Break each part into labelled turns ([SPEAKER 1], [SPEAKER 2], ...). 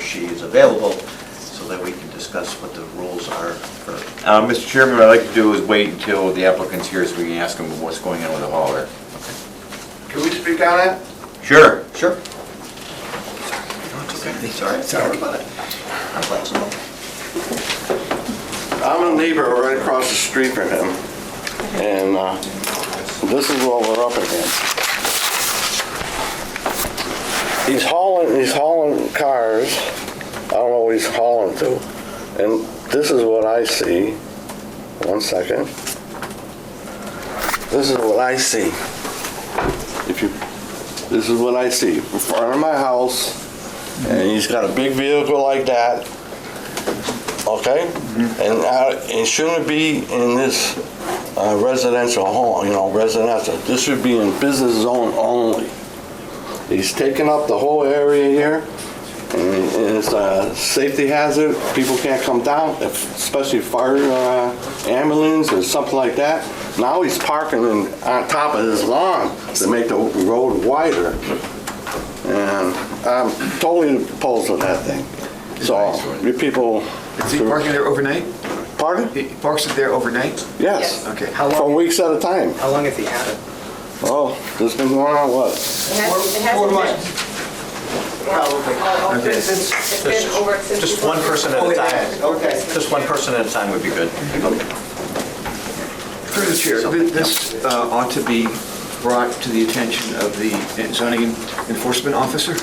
[SPEAKER 1] she is available, so that we can discuss what the rules are for
[SPEAKER 2] Uh, Mr. Chairman, what I'd like to do is wait until the applicant's here so we can ask him what's going on with the hauler.
[SPEAKER 3] Can we speak on that?
[SPEAKER 2] Sure. Sure.
[SPEAKER 1] Sorry, sorry about it. I'm flexible.
[SPEAKER 3] I'm a neighbor right across the street from him, and uh, this is what we're up against. He's hauling, he's hauling cars, I don't know what he's hauling to, and this is what I see. One second. This is what I see. If you, this is what I see, in front of my house, and he's got a big vehicle like that, okay? And I- it shouldn't be in this uh, residential home, you know, residential. This should be in business zone only. He's taking up the whole area here, and and it's a safety hazard. People can't come down, especially fire uh, ambulance or something like that. Now he's parking in- on top of his lawn to make the road wider. And I'm totally opposed to that thing. So, you people...
[SPEAKER 4] Is he parking there overnight?
[SPEAKER 3] Pardon?
[SPEAKER 4] He parks it there overnight?
[SPEAKER 3] Yes.
[SPEAKER 4] Okay.
[SPEAKER 5] How
[SPEAKER 3] For
[SPEAKER 5] long,
[SPEAKER 3] weeks at a time.
[SPEAKER 5] how long has he had it?
[SPEAKER 3] Oh, this been going on what?
[SPEAKER 6] It hasn't- it hasn't
[SPEAKER 4] Four
[SPEAKER 6] been.
[SPEAKER 4] months.
[SPEAKER 6] Probably.
[SPEAKER 4] Okay.
[SPEAKER 6] It's been over since.
[SPEAKER 1] Just one person at a time.
[SPEAKER 4] Okay.
[SPEAKER 1] Just one person at a time would be good.
[SPEAKER 4] Through the chair, th- this uh, ought to be brought to the attention of the zoning enforcement officer?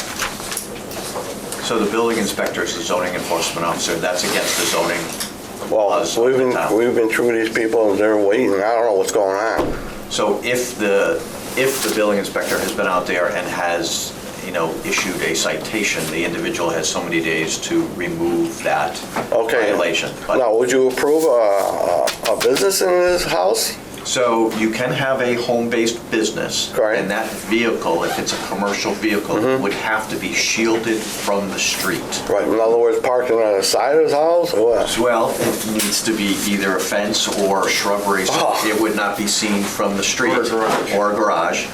[SPEAKER 1] So the building inspector is the zoning enforcement officer, that's against the zoning
[SPEAKER 3] Well,
[SPEAKER 1] laws
[SPEAKER 3] we've
[SPEAKER 1] of the
[SPEAKER 3] been,
[SPEAKER 1] town.
[SPEAKER 3] we've been through these people and they're waiting. I don't know what's going on.
[SPEAKER 1] So if the, if the building inspector has been out there and has, you know, issued a citation, the individual has so many days to remove that
[SPEAKER 3] Okay.
[SPEAKER 1] violation. But-
[SPEAKER 3] Now, would you approve a, a business in this house?
[SPEAKER 1] So you can have a home-based business.
[SPEAKER 3] Correct.
[SPEAKER 1] And that vehicle, if it's a commercial vehicle,
[SPEAKER 4] Mm-hmm.
[SPEAKER 1] would have to be shielded from the street.
[SPEAKER 3] Right, in other words, parking on the side of his house or what?
[SPEAKER 1] As well, it needs to be either a fence or shrubbery, so
[SPEAKER 3] Oh.
[SPEAKER 1] it would not be seen from the street.
[SPEAKER 4] Ah. Or a garage.
[SPEAKER 1] Or a garage.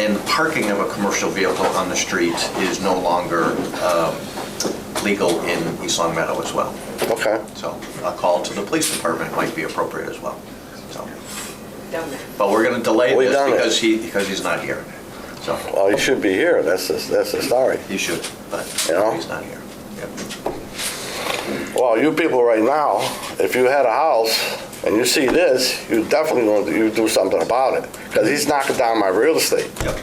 [SPEAKER 1] And the parking of a commercial vehicle on the street is no longer um, legal in East Long Meadow as well.
[SPEAKER 3] Okay.
[SPEAKER 1] So a call to the police department might be appropriate as well. So,
[SPEAKER 6] Done that.
[SPEAKER 1] But we're going to delay
[SPEAKER 3] We've
[SPEAKER 1] this
[SPEAKER 3] done it.
[SPEAKER 1] because he, because he's not here. So
[SPEAKER 3] Well, he should be here. That's the, that's the story.
[SPEAKER 1] he should, but
[SPEAKER 3] Yeah.
[SPEAKER 1] he's not here. Yep.
[SPEAKER 3] Well, you people right now, if you had a house and you see this, you definitely want to, you do something about it. Because he's knocking down my real estate.
[SPEAKER 1] Yep.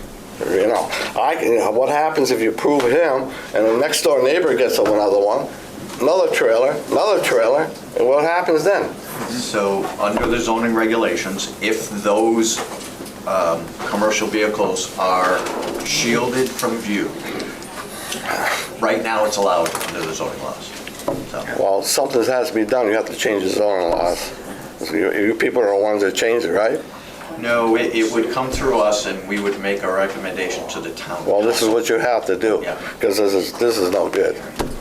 [SPEAKER 3] You know, I can, what happens if you prove him and the next door neighbor gets another one, another trailer, another trailer, and what happens then?
[SPEAKER 1] So, under the zoning regulations, if those um, commercial vehicles are shielded from view, right now it's allowed under the zoning laws. So,
[SPEAKER 3] Well, something has to be done. You have to change the zoning laws. So You, you people are the ones that change it, right?
[SPEAKER 1] No, it it would come through us and we would make a recommendation to the town.
[SPEAKER 3] Well, this is what you have to do.
[SPEAKER 1] Yeah.
[SPEAKER 3] Because this is, this is no good.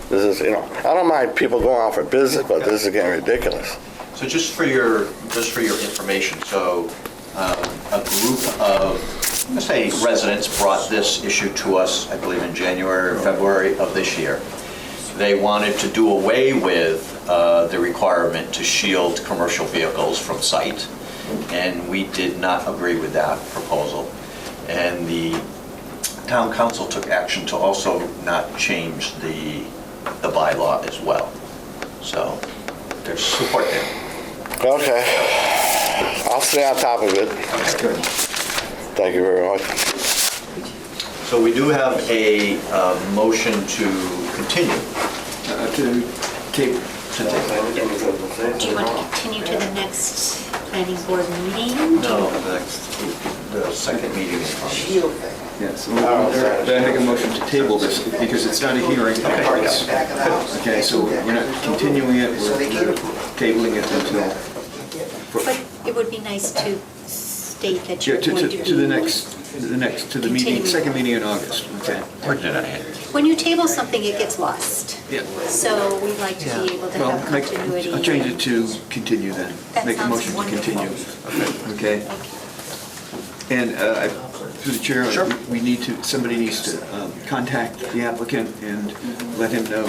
[SPEAKER 3] This is, you know, I don't mind people going out for business, but this is getting ridiculous.
[SPEAKER 1] So just for your, just for your information, so um, a group of, let's say residents brought this issue to us, I believe in January or February of this year. They wanted to do away with uh, the requirement to shield commercial vehicles from sight, and we did not agree with that proposal. And the town council took action to also not change the, the bylaw as well. So there's support there.
[SPEAKER 3] Okay. I'll stay on top of it. Thank you very much.
[SPEAKER 1] So we do have a uh, motion to continue.
[SPEAKER 4] Uh, To take,
[SPEAKER 7] Do you want to continue to the next planning board meeting?
[SPEAKER 1] The the second meeting in August.
[SPEAKER 5] Shield thing.
[SPEAKER 4] yes, then I make a motion to table this, because it's not a hearing. It's-
[SPEAKER 5] Back of the house.
[SPEAKER 4] Okay, so we're not continuing it,
[SPEAKER 5] So they
[SPEAKER 4] we're
[SPEAKER 5] can't approve it.
[SPEAKER 4] tabling it until,
[SPEAKER 7] But it would be nice to state that
[SPEAKER 4] yeah,
[SPEAKER 7] you're
[SPEAKER 4] to,
[SPEAKER 7] going to...
[SPEAKER 4] to to the next, the next, to the meeting, second meeting in August, okay?
[SPEAKER 7] When you table something, it gets lost.
[SPEAKER 4] Yeah.
[SPEAKER 7] So we'd like to be able to
[SPEAKER 4] Well,
[SPEAKER 7] have
[SPEAKER 4] make-
[SPEAKER 7] continuity.
[SPEAKER 4] I'll change it to continue then.
[SPEAKER 7] That
[SPEAKER 4] Make a
[SPEAKER 7] sounds
[SPEAKER 4] motion to
[SPEAKER 7] wonderful.
[SPEAKER 4] continue. Okay? And uh, I- through the chair, we- we need to, somebody needs to um, contact the applicant and let him know